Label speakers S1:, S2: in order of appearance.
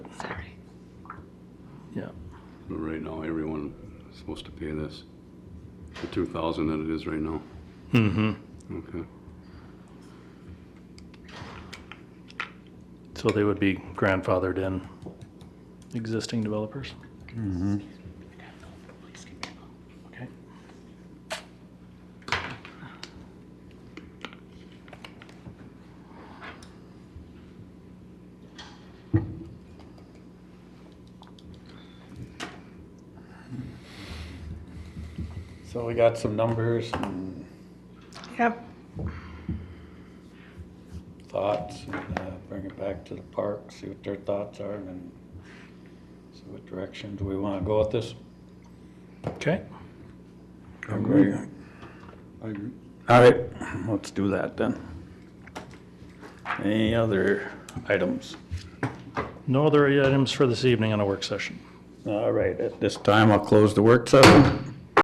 S1: yeah.
S2: But right now, everyone is supposed to pay this, the two thousand that it is right now. Mm-hmm. Okay,
S1: So they would be grandfathered in, existing developers? Okay.
S3: So we got some numbers and
S4: Yep,
S3: thoughts, and uh, bring it back to the park, see what their thoughts are, and then see what direction do we wanna go with this?
S1: Okay,
S3: agree. All right, let's do that then. Any other items?
S1: no other items for this evening on a work session.
S3: All right, at this time, I'll close the work session.